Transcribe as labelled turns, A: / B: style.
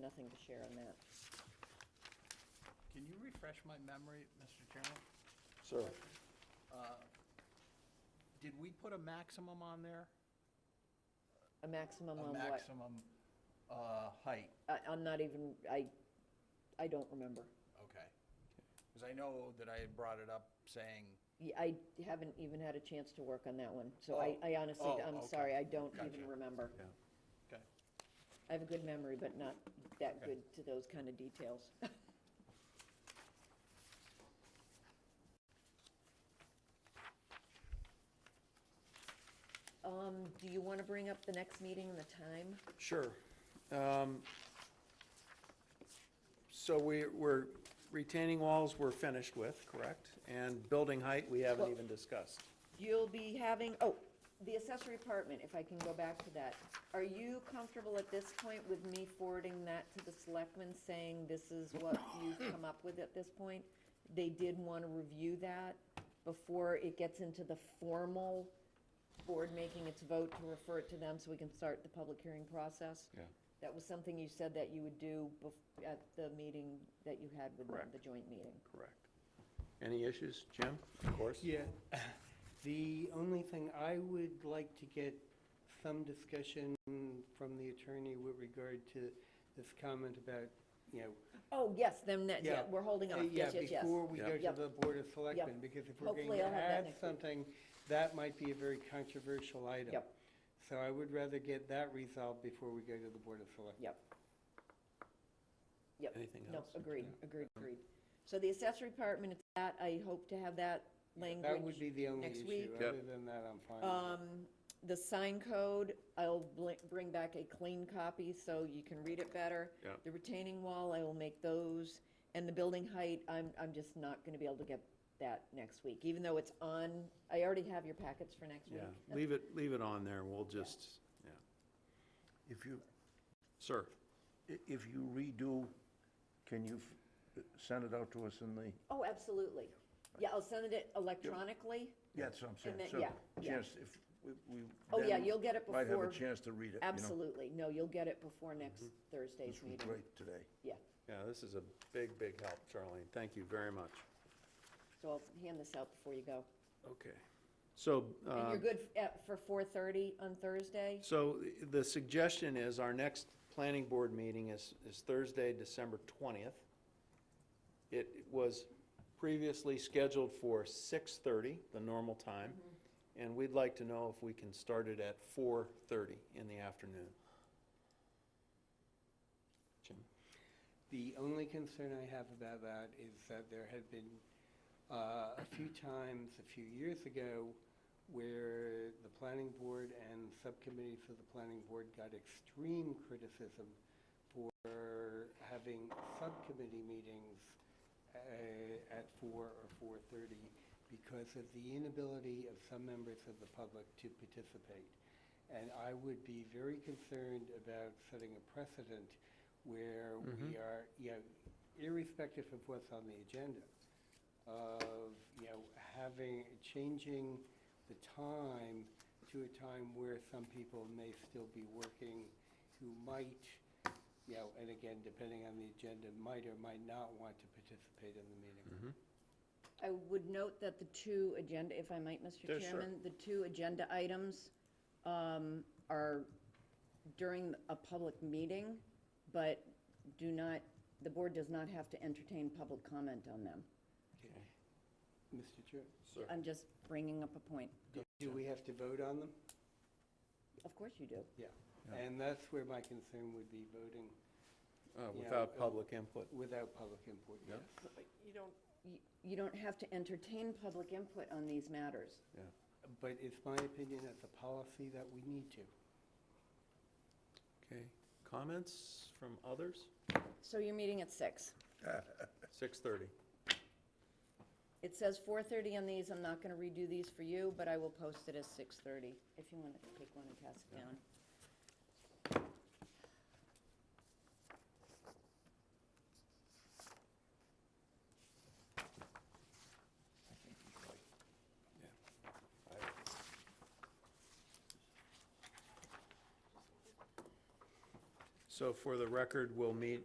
A: nothing to share on that.
B: Can you refresh my memory, Mr. Chairman? Uh,
C: Sir,
B: Did we put a maximum on there?
A: A maximum
B: A
A: on what?
B: maximum uh, height,
A: I, I'm not even, I, I don't remember.
B: okay. Because I know that I had brought it up saying,
A: Yeah, I haven't even had a chance to work on that one, so I,
B: Oh.
A: I honestly,
B: Oh,
A: I'm
B: okay.
A: sorry, I don't even
B: Gotcha.
A: remember.
B: okay,
A: I have a good memory, but not that
B: Okay.
A: good to those kind of details. Um, do you want to bring up the next meeting and the time?
C: sure. Um, So we, we're, retaining walls we're finished with, correct? And building height, we haven't
A: Well-
C: even discussed.
A: You'll be having, oh, the accessory apartment, if I can go back to that. Are you comfortable at this point with me forwarding that to the selectmen, saying this is what you've come up with at this point? They did want to review that before it gets into the formal board making its vote to refer it to them so we can start the public hearing process?
C: Yeah.
A: That was something you said that you would do bef- at the meeting that you had with them,
C: Correct.
A: the joint meeting.
C: Correct. Any issues, Jim? Of course.
D: Yeah, the only thing, I would like to get some discussion from the attorney with regard to this comment about, you know.
A: Oh, yes, then, that- yeah,
D: yeah,
A: we're holding
D: uh,
A: off, yes, yes, yes.
D: Yeah, before we
C: Yeah.
D: go to
A: Yep.
D: the Board of Selectmen,
A: Yep.
D: because if we're going
A: Hopefully
D: to
A: I'll have that
D: add
A: next week.
D: something, that might be a very controversial item.
A: Yep.
D: So I would rather get that resolved before we go to the Board of Selectmen.
A: Yep. Yep.
C: Anything else?
A: No, agreed, agreed, agreed. So the accessory apartment, it's that, I hope to have that language.
D: That would be the only
A: next week.
D: issue.
C: Yep.
D: Other than that, I'm fine. with it.
A: Um, the sign code, I'll bl- bring back a clean copy so you can read it better.
C: Yeah.
A: The retaining wall, I will make those, and the building height, I'm, I'm just not gonna be able to get that next week, even though it's on, I already have your packets for next week.
C: Yeah, leave it, leave it on there, we'll just, yeah.
E: If you,
C: Sir,
E: i- if you redo, can you f- send it out to us in the,
A: Oh, absolutely. Yeah, I'll send it electronically.
E: yeah, that's what I'm saying.
A: And then-
E: So,
A: yeah, yeah.
E: Chance, if we- we.
A: Oh, yeah,
E: then
A: you'll get it
E: Might have
A: before-
E: a chance to read it, you know.
A: Absolutely. No, you'll get it before next Thursday's
E: This was
A: meeting.
E: great today.
A: Yeah,
C: yeah, this is a big, big help, Charlene, thank you very much.
A: so I'll hand this out before you go.
C: Okay, so.
A: And
C: uh,
A: you're good f- at- for 4:30 on Thursday?
C: So the suggestion is our next planning board meeting is, is Thursday, December 20th. It was previously scheduled for 6:30, the normal time, and we'd like to know if we can start it at 4:30 in the afternoon. Jim?
D: The only concern I have about that is that there had been uh, a few times, a few years ago, where the planning board and subcommittees of the planning board got extreme criticism for having subcommittee meetings uh, at four or four-thirty because of the inability of some members of the public to participate. And I would be very concerned about setting a precedent where we are, you know, irrespective of what's on the agenda, of, you know, having, changing the time to a time where some people may still be working who might, you know, and again, depending on the agenda, might or might not want to participate in the meeting.
A: I would note that the two agenda, if I might,
C: Yeah,
A: Mr.
C: sure.
A: Chairman, the two agenda items um, are during a public meeting, but do not, the board does not have to entertain public comment on them.
D: Mr. Chair,
C: Sir. uh,
A: I'm just bringing up a point.
D: do we have to vote on them?
A: Of course you do.
D: Yeah, and that's where my concern would be, voting
C: Without public input.
D: without public input, yes.
A: You don't. You don't have to entertain public input on these matters.
C: Yeah.
D: But it's my opinion as a policy that we need to.
C: Okay. Comments from others?
A: So you're meeting at six.
C: 6:30.
A: It says four thirty on these, I'm not gonna redo these for you, but I will post it as six thirty, if you wanna take one and pass it down.
C: So for the record, we'll meet